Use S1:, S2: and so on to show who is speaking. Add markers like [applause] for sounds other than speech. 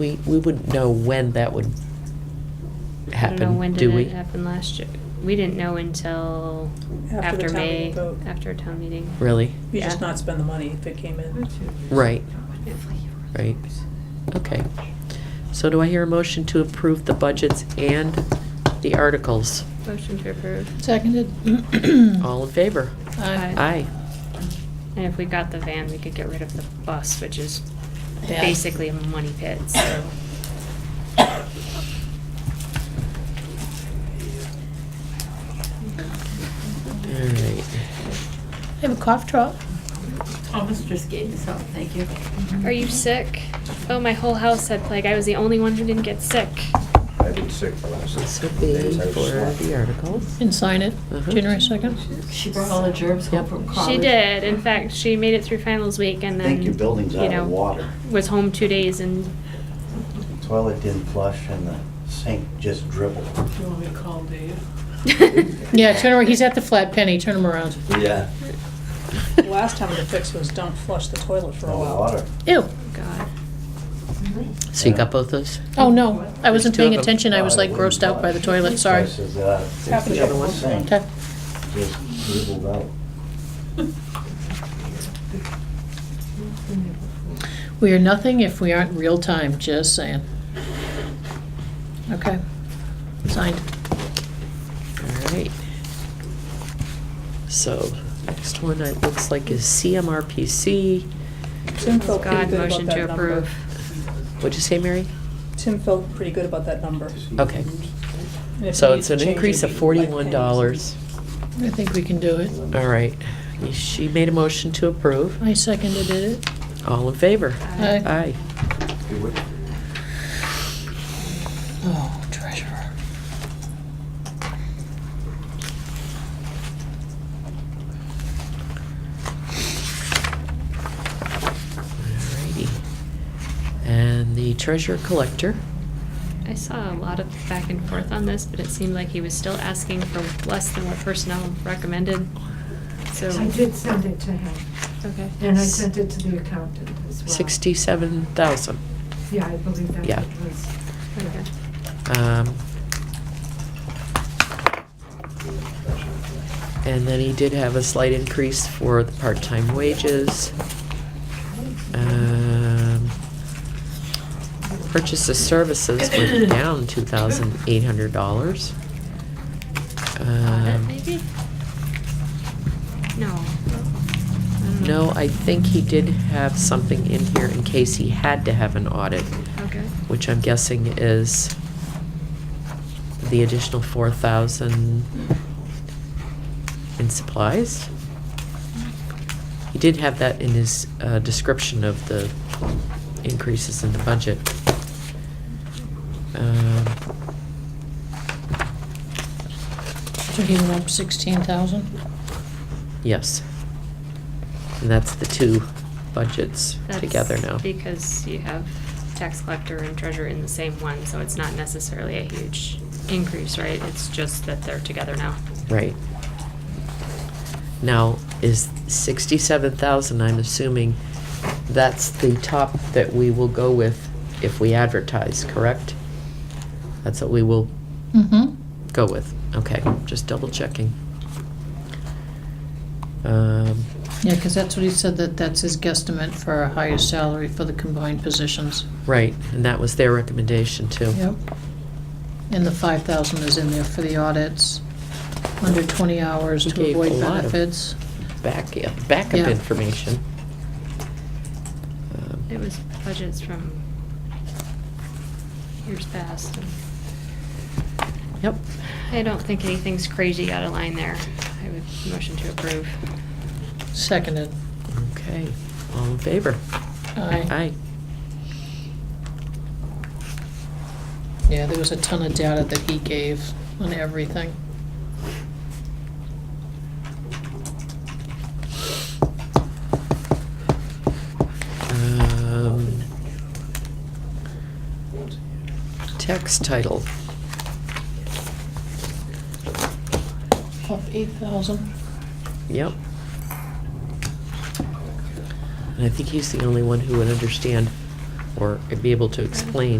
S1: We, we would know when that would
S2: I don't know,
S1: happen,
S2: when
S1: do
S2: did
S1: we?
S2: it happen last year? We didn't know until
S3: After
S2: after
S3: the town meeting
S2: May,
S3: vote.
S2: after town meeting.
S1: Really?
S3: You just
S2: Yeah.
S3: not spend the money if it came in.
S1: Right, right. Okay. So do I hear a motion to approve the budgets and the articles?
S2: Motion to approve.
S4: Seconded.
S1: [clears throat]
S2: Mm-hmm.
S4: Uh,
S1: All in favor?
S4: Aye.
S1: Aye.
S2: And if we got the van, we could get rid of the bus, which is
S4: Yeah.
S2: basically a money pit, so.
S1: All right.
S4: I have a cough drop.
S5: Thomas just gave this out, thank you.
S2: Are you sick? Oh, my whole house had plague. I was the only one who didn't get sick.
S6: I've been sick the last
S1: This would
S6: couple
S1: be
S6: days. I was
S1: for the
S6: sloppy.
S1: articles.
S4: And sign it,
S1: Uh-huh.
S4: January 2nd.
S5: She brought all the germs home from college.
S2: She did. In fact, she made it through finals week and
S6: I
S2: then.
S6: think your building's
S2: you
S6: out
S2: know,
S6: of water.
S2: Was home two days and
S6: The Toilet didn't flush and the sink just dribbled.
S5: Do you want me to call Dave?
S4: Yeah,
S2: [laughs]
S4: turn around, he's at the flat penny, turn him around.
S6: Yeah.
S2: Oh,
S3: Last time the fix was don't flush the toilet for a
S6: No
S3: while.
S6: water.
S4: Ew,
S2: God.
S5: Mm-hmm.
S1: So you got both those?
S4: oh no, I wasn't
S1: Two of
S4: paying
S1: them.
S4: attention, I was like grossed out by the toilet, sorry.
S6: Versus, uh, it's
S3: happened
S6: the
S3: to
S6: other
S3: the
S6: one.
S3: sink.
S6: Sink
S4: Okay.
S6: just dribbled out.
S4: We are nothing if we aren't real time, just saying. Okay, signed.
S1: All right. So, next one, it looks like is CMRPC.
S3: Tim felt pretty
S2: God,
S3: good about
S2: motion to
S3: that number.
S2: approve.
S1: What'd you say, Mary?
S3: Tim felt pretty good about that number.
S1: Okay.
S3: And if
S1: So
S3: he
S1: it's
S3: needs
S1: an
S3: to change
S1: increase
S3: it,
S1: of
S3: he'd like
S1: forty-one dollars.
S4: I think we can do it.
S1: All right. She made a motion to approve.
S4: I seconded it.
S1: All in favor? Aye.
S4: Aye. Oh, treasurer.
S1: Alrighty. And the treasurer collector,
S2: I saw a lot of back and forth on this, but it seemed like he was still asking for less than what personnel recommended, so.
S7: I did send it to him,
S2: Okay.
S7: and I sent it to the accountant as well.
S1: sixty-seven thousand.
S7: Yeah, I believe that
S1: Yeah.
S7: was.
S2: Okay.
S1: Um, and then he did have a slight increase for the part-time wages. Um, purchase of services went down two thousand eight hundred dollars. Um,
S2: Audit, maybe? No. I don't know.
S1: No, I think he did have something in here in case he had to have an audit,
S2: Okay,
S1: which I'm guessing is the additional four thousand in supplies. He did have that in his uh, description of the increases in the budget. Um,
S4: So he went up 16,000?
S1: Yes. And that's the two budgets
S2: that's.
S1: together now.
S2: Because you have tax collector and treasurer in the same one, so it's not necessarily a huge increase, right? It's just that they're together now.
S1: Right. Now, is sixty-seven thousand, I'm assuming, that's the top that we will go with if we advertise, correct? That's what we will
S4: Mm-hmm.
S1: go with, okay, just double checking. Um,
S4: Yeah, because that's what he said, that that's his guesstimate for a higher salary for the combined positions.
S1: right, and that was their recommendation too.
S4: Yep. And the five thousand is in there for the audits, under twenty hours
S1: He
S4: to
S1: gave a
S4: avoid
S1: lot of-
S4: benefits.
S1: Back, backup
S4: Yeah.
S1: information. Um,
S2: It was budgets from years past.
S1: Yep,
S2: I don't think anything's crazy out of line there. I would motion to approve.
S4: Seconded.
S1: okay, all in favor?
S4: Aye.
S1: Aye.
S4: Yeah, there was a ton of data that he gave on everything.
S1: Um, Text title,
S4: Up eight thousand.
S1: yep. And I think he's the only one who would understand or be able to explain